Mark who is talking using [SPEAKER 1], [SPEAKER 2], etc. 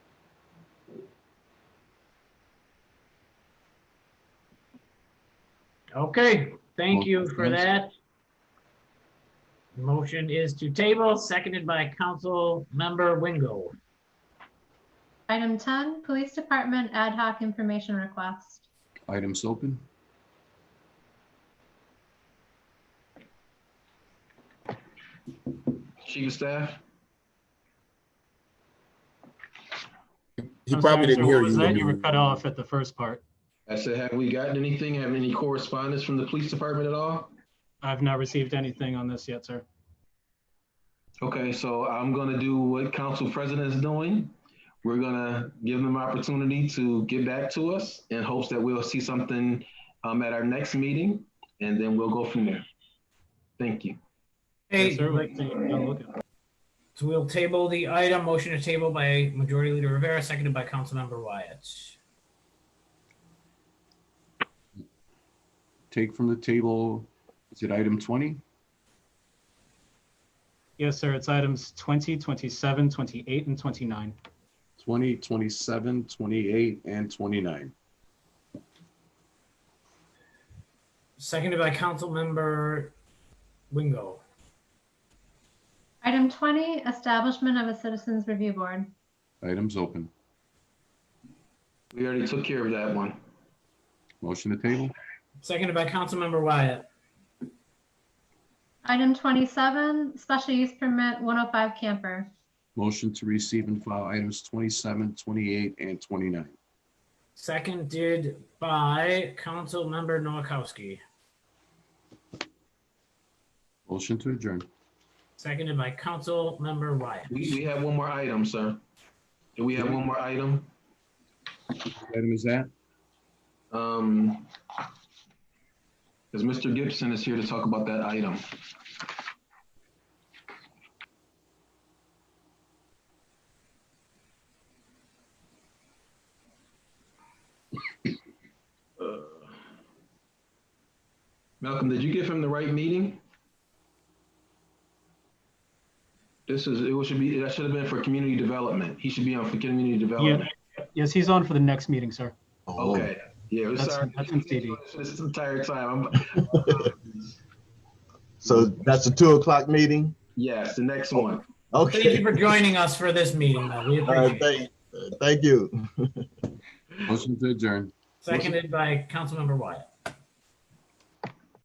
[SPEAKER 1] Okay, thank you
[SPEAKER 2] Motion
[SPEAKER 1] for
[SPEAKER 2] is-
[SPEAKER 1] that. Motion is to table, seconded by Council Member Wingo.
[SPEAKER 3] Item 10, Police Department Ad Hoc Information Request.
[SPEAKER 2] Items open.
[SPEAKER 4] Chief of Staff?
[SPEAKER 5] He
[SPEAKER 6] I'm
[SPEAKER 5] probably
[SPEAKER 6] sorry, sir,
[SPEAKER 5] didn't hear
[SPEAKER 6] what was that? You were
[SPEAKER 5] you.
[SPEAKER 6] cut off at the first part.
[SPEAKER 4] I said, have we gotten anything, have any correspondence from the police department at all?
[SPEAKER 6] I've not received anything on this yet, sir.
[SPEAKER 4] Okay, so I'm gonna do what council president is doing. We're gonna give them opportunity to get back to us in hopes that we'll see something um, at our next meeting, and then we'll go from there. Thank you.
[SPEAKER 6] Yes,
[SPEAKER 1] Hey,
[SPEAKER 6] sir, we can- don't look at it.
[SPEAKER 1] so we'll table the item, motion to table by Majority Leader Rivera, seconded by Council Member Wyatt.
[SPEAKER 2] Take from the table, is it item 20?
[SPEAKER 6] Yes, sir, it's items 20, 27, 28, and 29.
[SPEAKER 2] 20, 27, 28, and 29.
[SPEAKER 1] Seconded by Council Member Wingo.
[SPEAKER 3] Item 20, Establishment of a Citizens Review Board.
[SPEAKER 2] Items open.
[SPEAKER 4] We already took care of that one.
[SPEAKER 2] Motion to table?
[SPEAKER 1] Seconded by Council Member Wyatt.
[SPEAKER 3] Item 27, Special Use Permit 105 Camper.
[SPEAKER 2] Motion to receive and file items 27, 28, and 29.
[SPEAKER 1] Seconded by Council Member Noakowski.
[SPEAKER 2] Motion to adjourn.
[SPEAKER 1] Seconded by Council Member Wyatt.
[SPEAKER 4] We, we have one more item, sir. Do we have one more item?
[SPEAKER 2] What Item is that?
[SPEAKER 4] Um, because Mr. Gibson is here to talk about that item. Uh, Malcolm, did you give him the right meeting? This is, it should be, that should have been for community development. He should be on for community development.
[SPEAKER 6] Yes, he's on for the next meeting, sir.
[SPEAKER 5] Oh,
[SPEAKER 4] Okay, yeah, we're
[SPEAKER 6] That's-
[SPEAKER 4] sorry.
[SPEAKER 6] that's in CD.
[SPEAKER 4] This entire time, I'm,
[SPEAKER 5] So that's the two o'clock meeting?
[SPEAKER 4] yes, the next
[SPEAKER 6] Oh.
[SPEAKER 4] one.
[SPEAKER 1] Thank you
[SPEAKER 5] Okay.
[SPEAKER 1] for joining us for this meeting. though. We
[SPEAKER 5] All
[SPEAKER 1] appreciate
[SPEAKER 5] right,
[SPEAKER 1] it.
[SPEAKER 5] thank, thank you.
[SPEAKER 2] Motion to adjourn.
[SPEAKER 1] Seconded by Councilmember Wyatt.